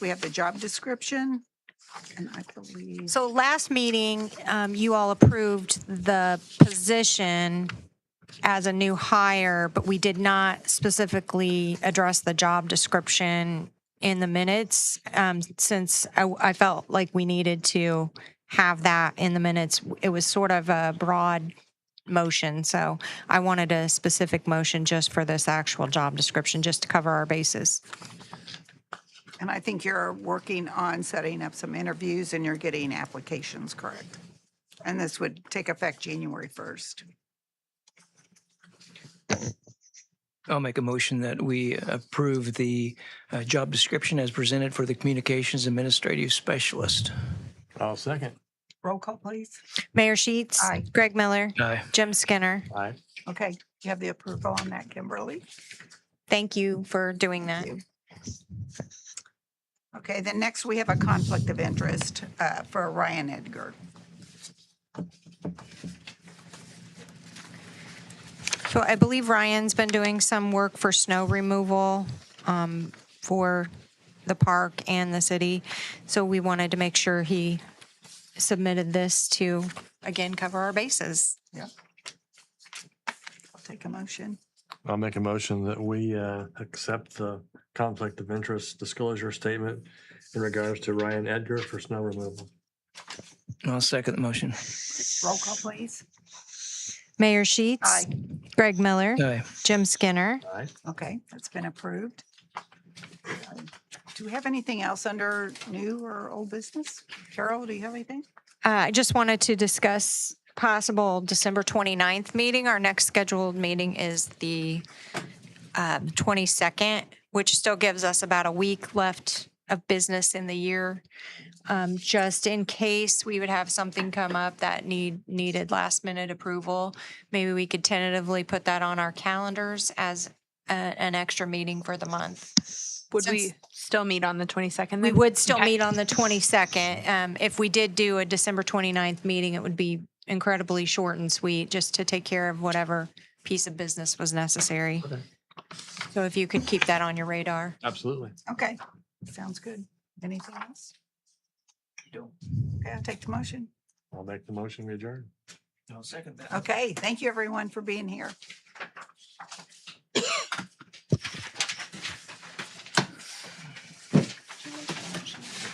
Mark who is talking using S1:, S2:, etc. S1: We have the job description. And I believe,
S2: So last meeting, um, you all approved the position as a new hire, but we did not specifically address the job description in the minutes, um, since I, I felt like we needed to have that in the minutes. It was sort of a broad motion, so I wanted a specific motion just for this actual job description, just to cover our bases.
S1: and I think you're working on setting up some interviews and you're getting applications, correct? And this would take effect January 1st.
S3: I'll make a motion that we approve the uh, job description as presented for the Communications Administrative Specialist.
S4: I'll second.
S1: Roll call, please.
S2: Mayor Sheets.
S1: Aye.
S2: Greg Miller.
S3: Aye.
S2: Jim Skinner.
S4: Aye.
S1: Okay, you have the approval on that, Kimberly?
S2: Thank you for doing that.
S1: Okay, then next we have a conflict of interest uh, for Ryan Edgar.
S2: So I believe Ryan's been doing some work for snow removal um, for the park and the city. So we wanted to make sure he submitted this to, again, cover our bases.
S1: I'll take a motion.
S4: I'll make a motion that we uh, accept the conflict of interest disclosure statement in regards to Ryan Edgar for snow removal.
S3: I'll second the motion.
S1: Roll call, please.
S2: Mayor Sheets.
S1: Aye.
S2: Greg Miller.
S3: Aye.
S2: Jim Skinner.
S4: Aye.
S1: Okay, that's been approved. Do we have anything else under new or old business? Carol, do you have anything?
S2: Uh, I just wanted to discuss possible December 29th meeting. Our next scheduled meeting is the um, 22nd, which still gives us about a week left of business in the year. Um, Just in case we would have something come up that need, needed last minute approval, maybe we could tentatively put that on our calendars as a- an extra meeting for the month.
S5: Would
S2: Since-
S5: we still meet on the 22nd?
S2: We
S5: then?
S2: would still
S5: Okay.
S2: meet on the 22nd. Um, If we did do a December 29th meeting, it would be incredibly short and sweet, just to take care of whatever piece of business was necessary.
S4: Okay.
S2: So if you could keep that on your radar.
S4: Absolutely.
S1: Okay, sounds good. Anything else? No. Okay, I'll take the motion.
S4: I'll make the motion we adjourn.
S3: I'll second that.
S1: Okay, thank you everyone for being here.